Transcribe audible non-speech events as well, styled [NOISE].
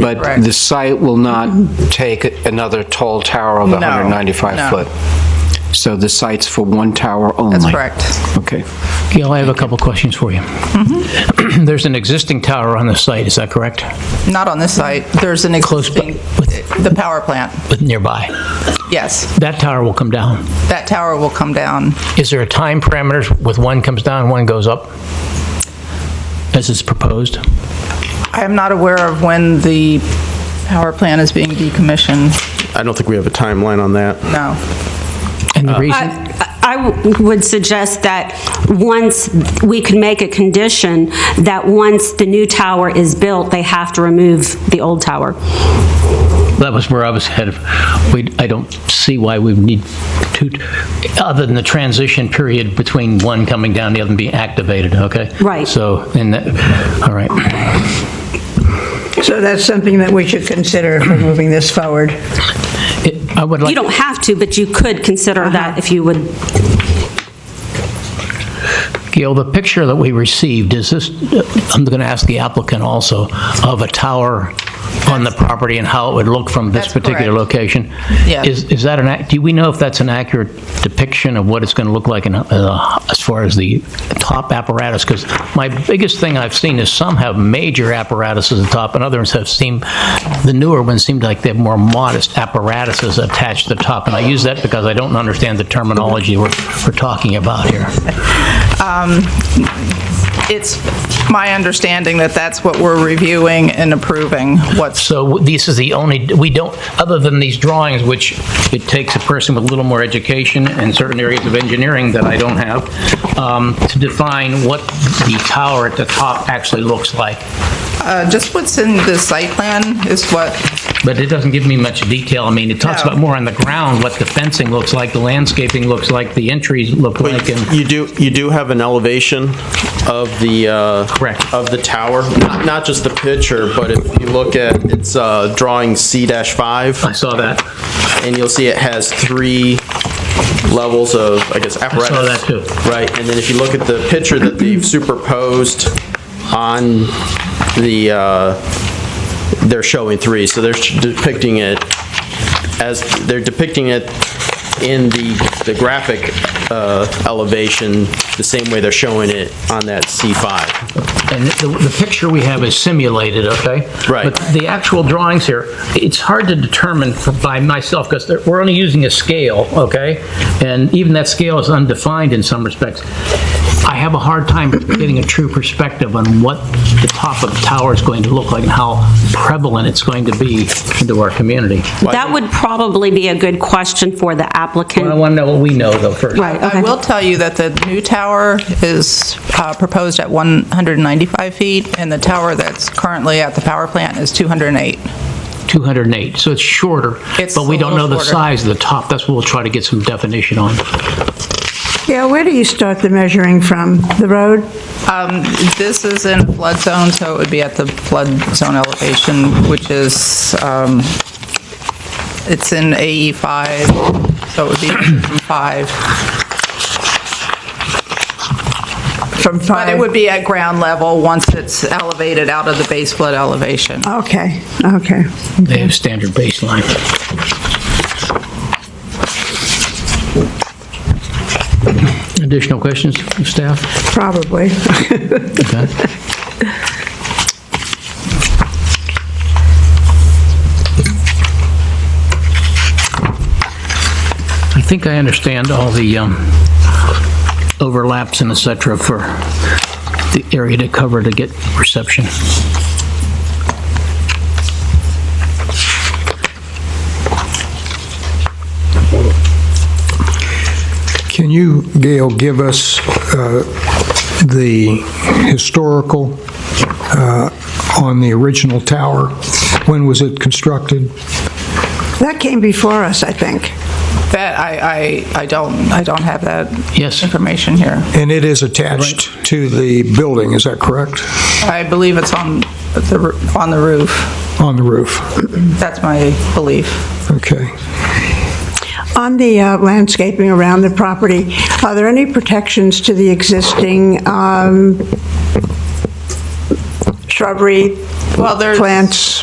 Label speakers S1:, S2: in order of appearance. S1: But
S2: Correct.
S1: the site will not take another tall tower of
S2: No,
S1: 195
S2: no.
S1: foot. So the site's for one tower only?
S2: That's correct.
S1: Okay.
S3: Gail, I have a couple questions for you. Mm-hmm. [CLEARS THROAT] There's an existing tower on the site, is that correct?
S2: Not on this site. There's an
S3: Close by-
S2: existing, the power plant.
S3: But nearby?
S2: Yes,
S3: That tower will come down.
S2: that tower will come down.
S3: Is there a time parameters with one comes down, one goes up? As is proposed?
S2: I am not aware of when the power plant is being decommissioned.
S4: I don't think we have a timeline on that.
S2: No.
S3: And the reason,
S5: I I w- would suggest that once, we could make a condition that once the new tower is built, they have to remove the old tower.
S3: that was where I was headed. We, I don't see why we need two, other than the transition period between one coming down, the other being activated, okay?
S5: Right.
S3: So, and that, all right.
S6: So that's something that we should consider if we're moving this forward.
S3: It- I would like
S5: You don't have to, but you could consider
S3: Uh-huh.
S5: that if you would
S3: Gail, the picture that we received, is this, I'm going to ask the applicant also, of a tower on the property and how it would look from this
S2: That's
S3: particular
S2: correct.
S3: location?
S2: Yeah.
S3: Is, is that an, ac- do we know if that's an accurate depiction of what it's going to look like in, uh, as far as the top apparatus? Because my biggest thing I've seen is some have major apparatuses at top, and others have seemed, the newer ones seemed like they have more modest apparatuses attached to the top. And I use that because I don't understand the terminology we're, we're talking about here.
S2: It's my understanding that that's what we're reviewing and approving, what's
S3: So this is the only, we don't, other than these drawings, which it takes a person with a little more education and certain areas of engineering that I don't have, um, to define what the tower at the top actually looks like.
S2: Uh, Just what's in the site plan is what,
S3: But it doesn't give me much detail. I mean, it talks
S2: No.
S3: about more on the ground, what the fencing looks like, the landscaping looks like, the entries look like, and
S4: You do, you do have an elevation of the, uh,
S3: Correct.
S4: of the tower, not not just the picture, but if you look at, it's uh, drawing
S3: I
S4: C-5,
S3: saw that.
S4: and you'll see it has three levels of, I guess, apparatus.
S3: that too.
S4: Right, and then if you look at the picture
S3: [CLEARS THROAT]
S4: that they've superposed on the, uh, they're showing three, so they're depicting it as, they're depicting it in the, the graphic uh, elevation, the same way they're showing it on that C5.
S3: And the, the picture we have is simulated, okay?
S4: Right.
S3: But the actual drawings here, it's hard to determine for- by myself, because we're only using a scale, okay? And even that scale is undefined in some respects. I have a hard time getting a true perspective on what the top of the tower is going to look like and how prevalent it's going to be into our community.
S5: That would probably be a good question for the
S3: I
S5: applicant.
S3: want to know what we know, though, first.
S5: Right,
S2: I
S5: okay.
S2: will tell you that the new tower is uh, proposed at 195 feet, and the tower that's currently at the power plant is 208.
S3: 208, so it's shorter,
S2: It's
S3: but we
S2: a
S3: don't know
S2: little
S3: the
S2: shorter.
S3: size of the top. That's what we'll try to get some definition on.
S6: Yeah, where do you start the measuring from? The road?
S2: Um, This is in a flood zone, so it would be at the flood zone elevation, which is, um, it's in AE5, so it would be [COUGHS] from 5.
S6: From
S2: But it
S6: five?
S2: would be at ground level once it's elevated out of the base flood elevation.
S6: Okay, okay.
S3: They have standard baseline. Additional questions, staff?
S6: Probably.
S3: Okay. I think I understand all the um, overlaps and et cetera for the area to cover to get reception.
S7: Can you, Gail, give us uh, the historical uh, on the original tower? When was it constructed?
S6: That came before us, I think.
S2: That, I, I, I don't, I don't have that
S3: Yes.
S2: information here.
S7: And it is attached to the building, is that correct?
S2: I believe it's on the, roo- on the roof.
S7: On the roof?
S2: That's my belief.
S7: Okay.
S6: On the uh, landscaping around the property, are there any protections to the existing um, shrubbery,
S2: Well, there's-
S6: plants?